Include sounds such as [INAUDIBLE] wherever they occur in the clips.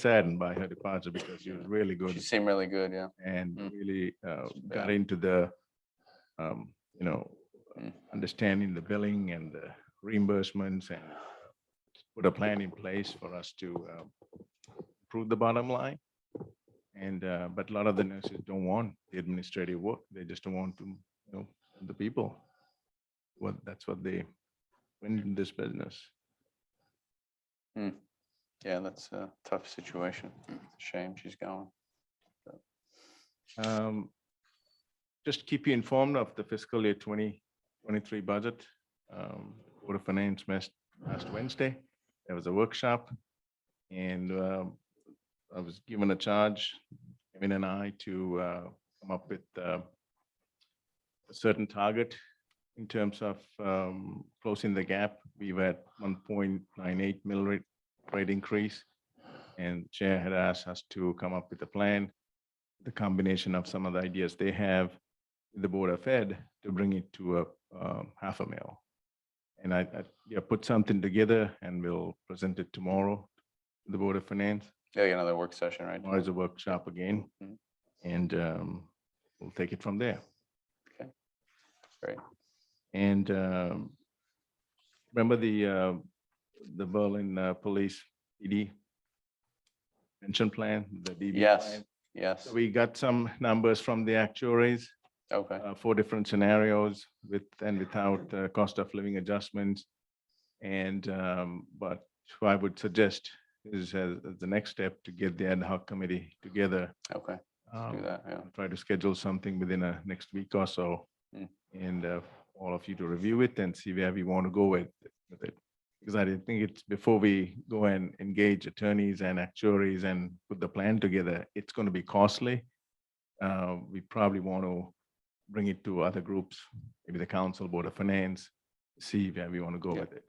saddened by her departure because she was really She good seemed really good, yeah. and Mm. really uh, got Yeah. into the, um, you know, Mm. understanding the billing and the reimbursements and uh, put a plan in place for us to um, improve the bottom line. And, uh, but a lot of the nurses don't want the administrative work. They just don't want to, you know, the people. Well, that's what they went in this business. Yeah, that's a tough situation. It's a Shame she's going. Um, Just keep you informed of the fiscal year 2023 budget. Um, Board of Finance met last Wednesday. There was a workshop. And um, I was given a charge, Kevin and I, to uh, come up with uh, a certain target in terms of um, closing the gap. We were at 1.98 mill rate rate increase. And Chair had asked us to come up with a plan the combination of some of the ideas they have, the Board of Ed, to bring it to a um, half a mil. And I, I, yeah, put something together and we'll present it tomorrow, to the Board of Finance, Yeah, you know, the work session, right? tomorrow's a workshop again. Mhm. And um, we'll take it from there. Okay. Great. And um, remember the, uh, the Berlin uh, Police PD pension plan, the DB? Yes, plan? yes. So We got some numbers from the actuaries Okay, uh, four different scenarios with and without uh, cost of living adjustments. And um, but what I would suggest is as as the next step to get the ad hoc committee together. okay. Let's do um, that, yeah. I'll Try to schedule something within a next week or so. Mm. And uh, all of you to review it and see where we want to go with with it. Because I didn't think it's before we go and engage attorneys and actuaries and put the plan together, it's going to be costly. Uh, We probably want to bring it to other groups, maybe the council, board of finance, see where we want to go Yeah. with it.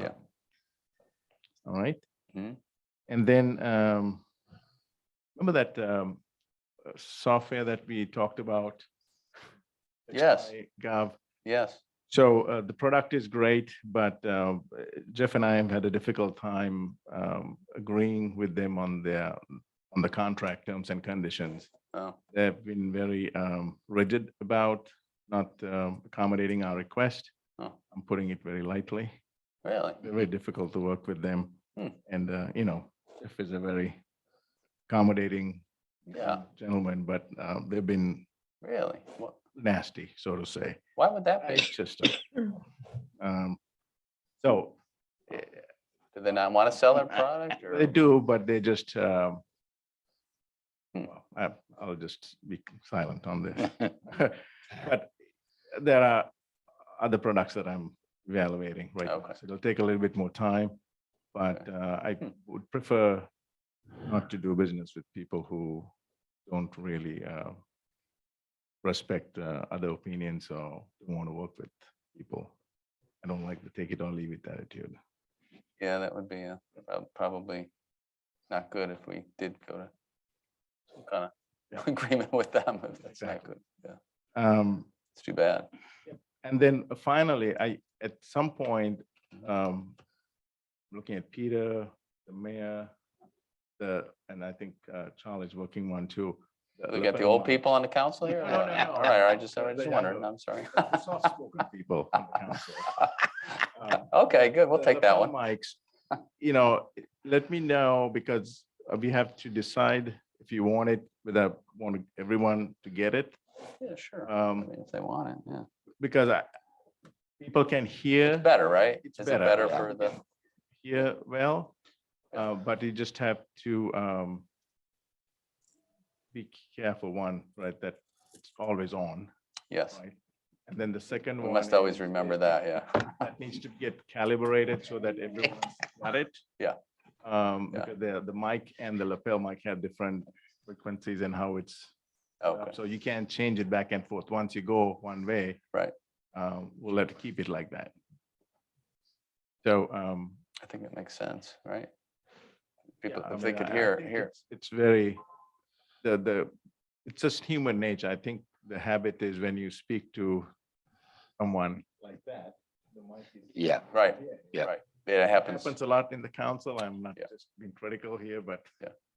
Yeah. Um, All right. Mhm. And then um, remember that um, uh, software that we talked about? Yes. HI Gov. Yes, So uh, the product is great, but uh, Jeff and I have had a difficult time um, agreeing with them on their, on the contract terms and conditions. oh, They've been very um, rigid about not um, accommodating our request. Oh. I'm putting it very lightly. really? They're Very difficult to work with them. Hmm. And, uh, you know, Jeff is a very accommodating Yeah, gentleman, but uh, they've been really? Wha- nasty, so to say. Why would that be? It's just, a- um, so Do they not want to sell their I- product or? [LAUGHS] they do, but they just, um, Hmm. well, I- I'll just be silent on this. [LAUGHS] But there are other products that I'm evaluating right now. Okay. So it'll take a little bit more time, but uh, I Hmm. would prefer not to do business with people who don't really uh, respect uh, other opinions or don't want to work with people. I don't like the take it or leave it attitude. [LAUGHS] Yeah, that would be uh, prob- probably not good if we did go to some kind Yeah. of [LAUGHS] agreement with them. if That's not Exactly. good. Yeah, Um, it's too bad. And then finally, I, at some point, um, looking at Peter, the mayor, the, and I think uh, Charlie's working one too. We got the old people on the council here? [LAUGHS] No, no, or what? no, no. All right, I just, The- I the just wondered, younger- I'm sorry. the [LAUGHS] Soft-spoken people on the council. Um, Okay, good, we'll the- the take that phone one. Mics, you know, let me know because uh, we have to decide if you want it, whether I want everyone to get it. Yeah, sure. I Um, mean, If they want it, yeah. because I, people can hear. It's better, right? It's Is it better, better yeah. for the, Yeah, well, uh, but you just have to, um, be careful, one, right, that it's always on, yes, right? And then the second we one. must always is- remember is that, [LAUGHS] yeah. That needs to get calibrated so that [LAUGHS] everyone's got it. Yeah. Um, Yeah. because the, the mic and the lapel mic have different frequencies and how it's, set up, Okay, so you can't change it back and forth. Once you go one way. Right. Um, we'll let, keep it like that. So, um, I think that makes sense, right? People, Yeah, I if they mean, could I- I hear, think hear, it's- It's very, the, the, it's just human nature. I think the habit is when you speak to someone. Like that. Yeah, right, Yeah. right, it happens. Happens a lot in the council. I'm not Yeah. just being critical here, but Yeah.